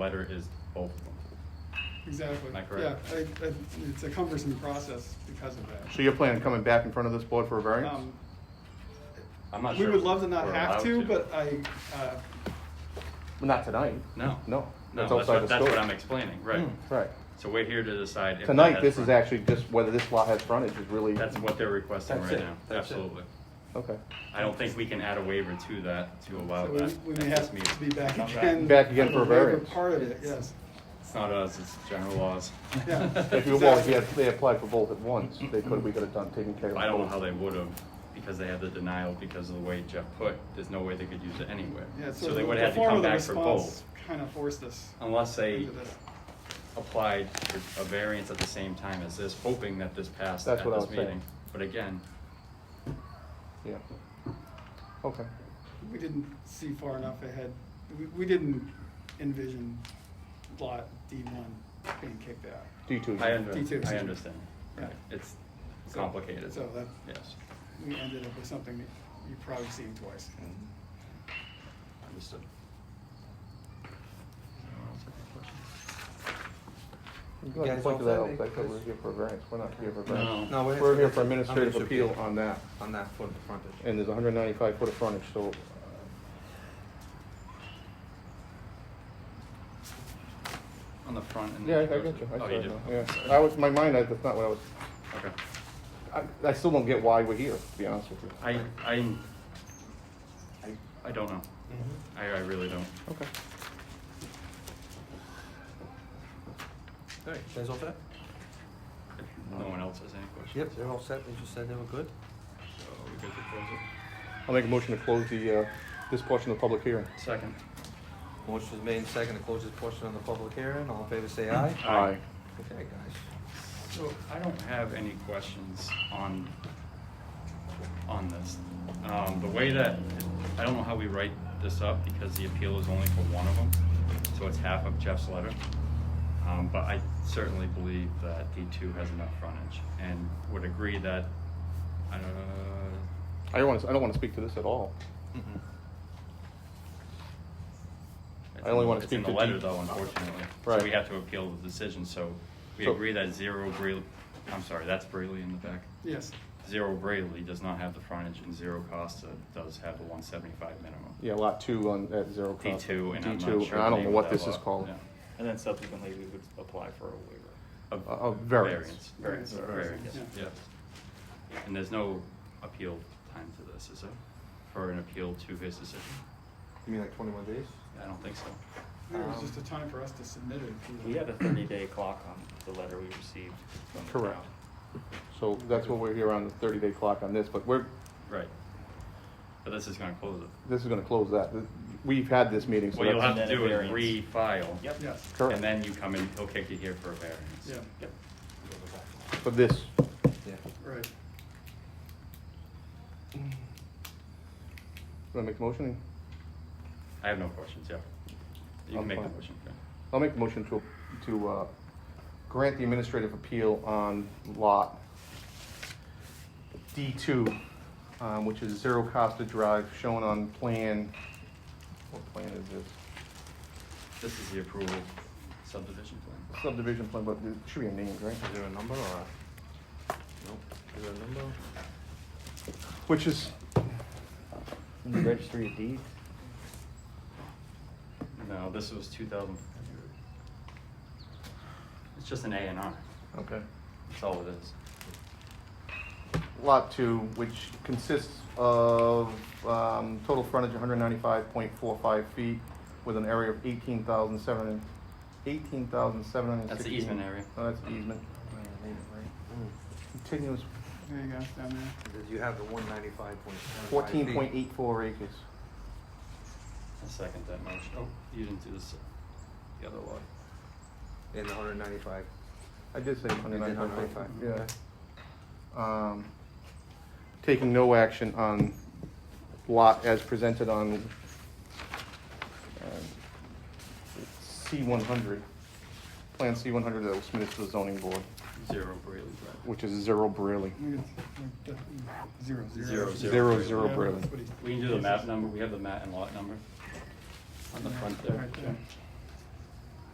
letter is both of them. Exactly. Am I correct? Yeah, I, I, it's a cumbersome process because of that. So you're planning on coming back in front of this board for a variance? Um, I'm not We sure. would if love to not we're have allowed to, but I, uh, Well, Not tonight. No. No. No, That's that's outside what, the that's what scope. I'm explaining, right. Mm, Right. So we're here to decide. if that Tonight, has this is frontage. actually just whether this lot has frontage is really. That's what they're requesting That's right it. now, That's it. absolutely. Okay. I don't think we can add a waiver to that to allow so we- that. we at may this have to meeting. be back Come again. Back again for a on the waiver variance. Part of it, yes. It's not us, it's general laws. Yeah. If you, well, if you had, they applied for both at once, they could, we could have done, taken care of. I don't know how both. they would have, because they had the denial because of the way Jeff put, there's no way they could use it anywhere. Yeah, So they the- would the have to form come of the back for response both, Kind of forced us unless they into this. applied for a variance at the same time as this, hoping that this passed at That's what I this was saying. meeting. But again, Yeah. Okay. We didn't see far enough ahead. We, we didn't envision lot D one being kicked out. D two. I Me too. under, I understand, right, Yeah. it's complicated, So that, yes, we ended up with something that you've probably seen twice. understood. Go ahead, guys point to all that, out, set? like, that we're here for a variance, we're not here for a variance. No, No, We're here for administrative appeal on that, On that foot of the frontage. and there's hundred ninety-five foot of frontage, so. on the front and. Yeah, I I then goes- got you. I Oh, saw you it did? now, Okay, Yeah, sorry. I was, my mind, I- that's not what I was, Okay, I, I still don't get why we're here, to be honest with you. I, I, I, I don't know, Mm-hmm. I, I really don't. Okay. Alright, you guys all set? If no one else has any questions. Yep, they're all set, they just said they were good. So we good to close it? I'll make a motion to close the, uh, this portion of the public hearing. Second. Motion was made and second to close this portion on the public hearing, all in favor say aye. Aye. Okay, guys. So I don't have any questions on, on this. Um, the way that, I don't know how we write this up because the appeal is only for one of them, so it's half of Jeff's letter. Um, but I certainly believe that D two has enough frontage and would agree that, uh, I don't wanna, I don't wanna speak to this at all. Mhm. it's I only in- wanna It's in speak the to letter D- though, unfortunately. So Right. we have to appeal the decision, so we So- agree that zero Braille, I'm sorry, that's Braille in the back. Yes. Zero Brayley does not have the frontage and Zero Costa does have the one seventy-five minimum. Yeah, lot two on, at zero D cost. two, and I'm not D2, sure. and the I don't name know of what that this is lot. called. Yeah. And then subsequently, we would apply for a waiver. A- a variance. Variance, Variance, variance, yeah. yes. And there's no appeal time to this, is there? For an appeal to his decision? You mean like twenty-one days? I don't think so. There was Um, just a time for us to submit it. if We had a thirty-day clock on the letter we received from the Correct. town. So that's what we're here on, the thirty day clock on this, but we're, Right. But this is gonna close it. this is gonna close that. We've had this meeting, so What you'll that's have to And then do a is variance. refile. Yep. Yes, And current then you come in, he'll kick you here for a variance. yeah, Yep. for this. Yeah. right. Want to make a motion? I have no questions, yeah. You can I'm make the fine. motion, okay. I'll make a motion to, to, uh, grant the administrative appeal on lot D two, um, which is Zero Costa Drive, shown on plan, what plan is this? This is the approval subdivision plan. Subdivision plan, but it should be a name, right? Is there a number or a? Nope, is there a number? Which is, Registry of deeds? No, this was two thousand. It's just an A and R, okay, that's all it is. lot two, which consists of, um, total frontage one hundred ninety-five point four five feet with an area of eighteen thousand seven hundred, eighteen thousand seven hundred and That's the sixteen. easement area. Oh, that's the easement. Continuous There you go, down there. You have the one ninety-five point. fourteen point eight four acres. I second that motion. Oh, you didn't do this, the other lot. And the hundred ninety-five. I did say You one did hundred ninety-five 195, point yeah. Um, taking no action on lot as presented on uh, C one hundred, Plan C one hundred that was submitted to the zoning board, Zero Brayley Drive. which is zero Brayley. We could- we could- Zero, Zero, zero. Zero zero Yeah, Brayley. that's what he- We can do the map number, we have the mat and lot number on the front there. Right there.